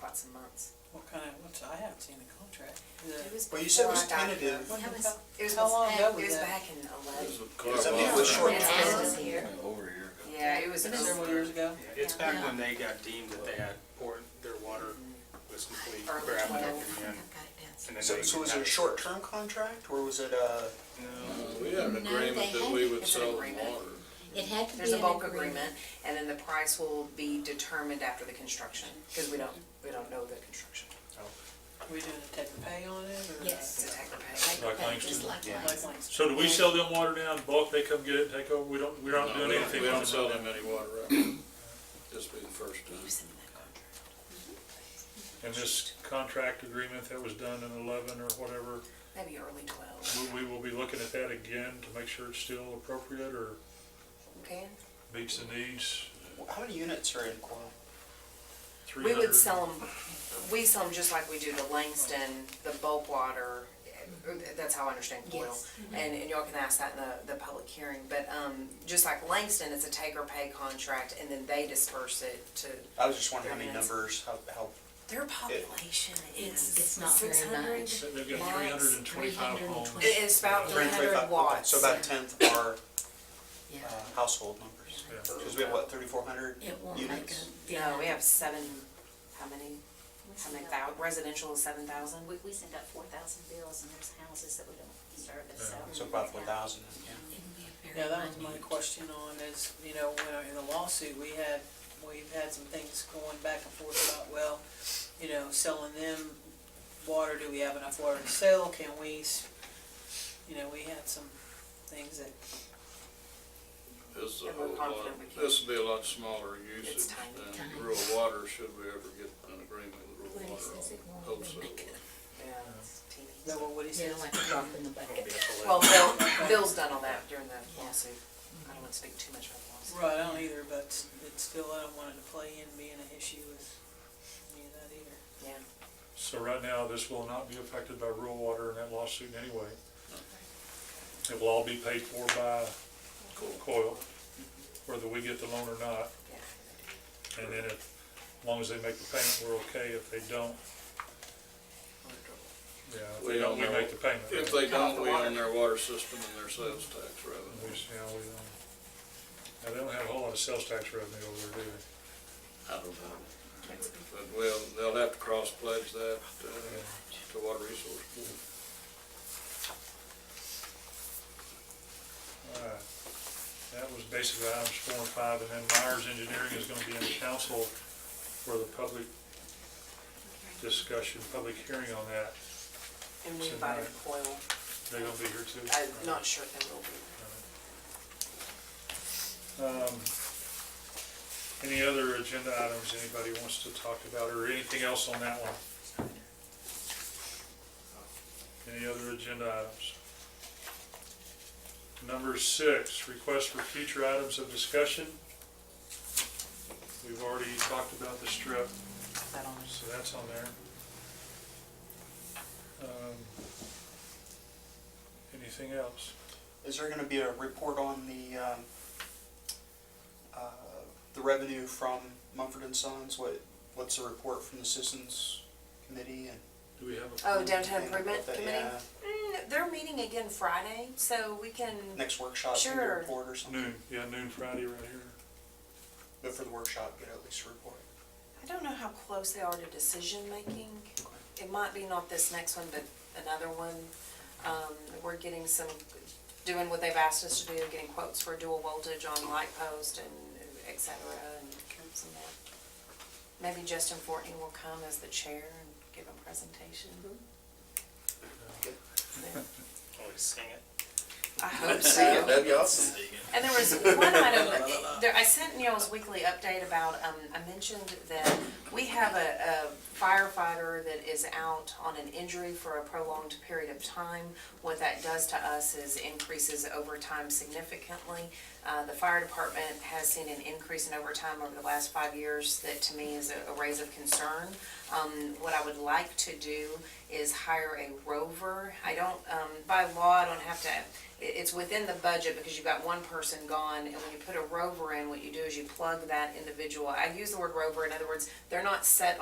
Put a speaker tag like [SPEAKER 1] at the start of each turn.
[SPEAKER 1] months and months.
[SPEAKER 2] What kind of, what's, I haven't seen the contract. Is
[SPEAKER 1] It
[SPEAKER 2] it-
[SPEAKER 1] was
[SPEAKER 3] Well, you said it was
[SPEAKER 1] before I got here.
[SPEAKER 3] tentative.
[SPEAKER 2] What
[SPEAKER 1] It
[SPEAKER 2] the
[SPEAKER 1] was,
[SPEAKER 2] hell-
[SPEAKER 1] it was
[SPEAKER 2] How long
[SPEAKER 1] back,
[SPEAKER 2] ago
[SPEAKER 1] it
[SPEAKER 2] was
[SPEAKER 1] was
[SPEAKER 2] that?
[SPEAKER 1] back in eleven.
[SPEAKER 3] I mean, it was short
[SPEAKER 1] And
[SPEAKER 3] term.
[SPEAKER 1] Alan was here.
[SPEAKER 4] Over a year ago.
[SPEAKER 1] Yeah, it was
[SPEAKER 2] Several
[SPEAKER 1] over
[SPEAKER 2] years ago?
[SPEAKER 5] It's back when they got deemed that they had, poured their water was complete,
[SPEAKER 1] early
[SPEAKER 5] grabbed it up
[SPEAKER 1] twelve.
[SPEAKER 5] again. And then
[SPEAKER 3] So,
[SPEAKER 5] they
[SPEAKER 3] so was it
[SPEAKER 5] had-
[SPEAKER 3] a short-term contract, or was it uh, a,
[SPEAKER 6] We had an
[SPEAKER 7] No,
[SPEAKER 6] agreement
[SPEAKER 7] they
[SPEAKER 6] that we would
[SPEAKER 1] It's an
[SPEAKER 6] sell the
[SPEAKER 1] agreement.
[SPEAKER 6] water.
[SPEAKER 7] It had to be
[SPEAKER 1] There's a
[SPEAKER 7] an
[SPEAKER 1] bulk
[SPEAKER 7] agreement.
[SPEAKER 1] agreement, and then the price will be determined after the construction, because we don't, we don't know the construction.
[SPEAKER 2] Are we doing a take and pay on it or?
[SPEAKER 7] Yes.
[SPEAKER 1] It's a take or pay.
[SPEAKER 7] Like
[SPEAKER 8] Like
[SPEAKER 7] that,
[SPEAKER 8] Langston?
[SPEAKER 7] just like
[SPEAKER 4] Yeah.
[SPEAKER 2] Like
[SPEAKER 7] Langston.
[SPEAKER 2] Langston?
[SPEAKER 8] So do we sell them water now in bulk, they come get it, take over, we don't, we're
[SPEAKER 6] No,
[SPEAKER 8] not
[SPEAKER 6] we
[SPEAKER 8] doing
[SPEAKER 6] don't-
[SPEAKER 8] anything
[SPEAKER 6] We
[SPEAKER 8] on
[SPEAKER 6] don't sell
[SPEAKER 8] them?
[SPEAKER 6] them any water right now. This will be the first
[SPEAKER 1] You
[SPEAKER 6] time.
[SPEAKER 1] sent me that contract.
[SPEAKER 8] And this contract agreement that was done in eleven or whatever,
[SPEAKER 1] Maybe early twelve.
[SPEAKER 8] we, we will be looking at that again to make sure it's still appropriate or
[SPEAKER 1] Okay.
[SPEAKER 8] meets the needs.
[SPEAKER 3] how many units are in Coyle?
[SPEAKER 1] We would
[SPEAKER 8] 300.
[SPEAKER 1] sell them, we sell them just like we do to Langston, the bulk water, uh, that's how I understand Coyle.
[SPEAKER 7] Yes.
[SPEAKER 1] And, and y'all can ask that in the, the public hearing, but, um, just like Langston, it's a take or pay contract and then they disperse it to,
[SPEAKER 3] I was just wondering how many
[SPEAKER 1] Very nice.
[SPEAKER 3] numbers, how, how,
[SPEAKER 1] their population
[SPEAKER 7] It's-
[SPEAKER 1] is
[SPEAKER 7] it's not very
[SPEAKER 1] 600.
[SPEAKER 7] much.
[SPEAKER 8] They've got three hundred and twenty-five homes.
[SPEAKER 7] 320.
[SPEAKER 1] It- It's about three
[SPEAKER 3] 325
[SPEAKER 1] hundred
[SPEAKER 3] okay,
[SPEAKER 1] watts.
[SPEAKER 3] So about a tenth are
[SPEAKER 7] Yeah.
[SPEAKER 3] uh, household numbers, because we have, what, thirty-four hundred
[SPEAKER 7] It won't make
[SPEAKER 3] units?
[SPEAKER 7] a.
[SPEAKER 1] No, we have seven, how many,
[SPEAKER 9] We
[SPEAKER 1] how
[SPEAKER 9] send
[SPEAKER 1] many
[SPEAKER 9] out-
[SPEAKER 1] thou, residential is seven thousand?
[SPEAKER 9] We, we send out four thousand bills and there's houses that we don't service, so.
[SPEAKER 3] So about four thousand, yeah.
[SPEAKER 2] Yeah, that was my question on is, you know, when I- in the lawsuit, we had, we've had some things going back and forth about, well, you know, selling them water, do we have enough water to sell, can we, s- you know, we had some things that,
[SPEAKER 6] This is a
[SPEAKER 1] And
[SPEAKER 6] whole
[SPEAKER 1] we're
[SPEAKER 6] lot,
[SPEAKER 1] confident we can-
[SPEAKER 6] this will be a lot smaller usage
[SPEAKER 1] It's tiny.
[SPEAKER 6] than
[SPEAKER 7] Tiny.
[SPEAKER 6] rural water, should we ever get an agreement with
[SPEAKER 7] When
[SPEAKER 6] rural
[SPEAKER 7] he
[SPEAKER 6] water
[SPEAKER 7] says it
[SPEAKER 6] on
[SPEAKER 7] won't
[SPEAKER 1] Oh
[SPEAKER 6] wholesale.
[SPEAKER 7] make it.
[SPEAKER 6] water.
[SPEAKER 1] Yeah, it's teeny.
[SPEAKER 2] that what Woody
[SPEAKER 7] Yeah,
[SPEAKER 2] says.
[SPEAKER 7] like a drop in the bucket.
[SPEAKER 1] Well, Bill, Bill's done all that during the
[SPEAKER 7] Yeah.
[SPEAKER 1] lawsuit. I don't want to speak too much about the lawsuit.
[SPEAKER 2] Right, I don't either, but it's still, I don't want it to play in being an issue with any of that either.
[SPEAKER 1] Yeah.
[SPEAKER 8] So right now, this will not be affected by rural water in that lawsuit anyway. It will all be paid for by COIL, whether we get the loan or not.
[SPEAKER 1] Yeah.
[SPEAKER 8] And then if, as long as they make the payment, we're okay. If they don't, yeah, if
[SPEAKER 6] We
[SPEAKER 8] they don't,
[SPEAKER 6] don't
[SPEAKER 8] we
[SPEAKER 6] know.
[SPEAKER 8] make the payment.
[SPEAKER 6] If they
[SPEAKER 1] Cut off
[SPEAKER 6] don't,
[SPEAKER 1] the
[SPEAKER 6] we
[SPEAKER 1] water.
[SPEAKER 6] own their water system and their sales tax
[SPEAKER 8] We,
[SPEAKER 6] revenue.
[SPEAKER 8] s- yeah, we, um, now, they don't have a whole lot of sales tax revenue over there, do they?
[SPEAKER 6] I don't know. But we'll, they'll have to cross pledge that uh, to Water Resource Board.
[SPEAKER 8] All right. uh, That was basically items four and five, and then Myers Engineering is gonna be in the council for the public discussion, public hearing on that.
[SPEAKER 1] And we
[SPEAKER 8] So
[SPEAKER 1] invited
[SPEAKER 8] now-
[SPEAKER 1] Coyle.
[SPEAKER 8] They're gonna be here too.
[SPEAKER 1] I'm not sure if they will be.
[SPEAKER 8] Um, Any other agenda items anybody wants to talk about, or anything else on that one? Any other agenda items? Number six, request for future items of discussion. We've already talked about the strip,
[SPEAKER 1] That on
[SPEAKER 8] so that's on there. Um, Anything else?
[SPEAKER 3] Is there gonna be a report on the, um, uh, the revenue from Mumford and Sons? What, what's the report from the Citizens Committee and?
[SPEAKER 8] Do we have a?
[SPEAKER 1] Oh, downtown
[SPEAKER 3] and what
[SPEAKER 1] improvement
[SPEAKER 3] that-
[SPEAKER 1] committee?
[SPEAKER 3] yeah,
[SPEAKER 1] Mm, they're meeting again Friday, so we can,
[SPEAKER 3] Next workshop, maybe a
[SPEAKER 1] Sure.
[SPEAKER 3] report or something?
[SPEAKER 8] Noon, yeah, noon Friday right here.
[SPEAKER 3] But for the workshop, get at least a report.
[SPEAKER 1] I don't know how close they are to decision-making. It might be not this next one, but another one. Um, we're getting some, doing what they've asked us to do, getting quotes for dual voltage on light post and et cetera and some that. Maybe Justin Fortney will come as the chair and give a presentation. Yeah.
[SPEAKER 5] Always sing it.
[SPEAKER 1] I hope so.
[SPEAKER 3] that'd be awesome.
[SPEAKER 1] And there was one item, there, I sent Neil's weekly update about, um, I mentioned that we have a a firefighter that is out on an injury for a prolonged period of time. What that does to us is increases overtime significantly. Uh, the fire department has seen an increase in overtime over the last five years that to me is a- a raise of concern. Um, what I would like to do is hire a rover. I don't, um, by law, I don't have to, it, it's within the budget because you've got one person gone, and when you put a rover in, what you do is you plug that individual. I use the word rover, in other words, they're not set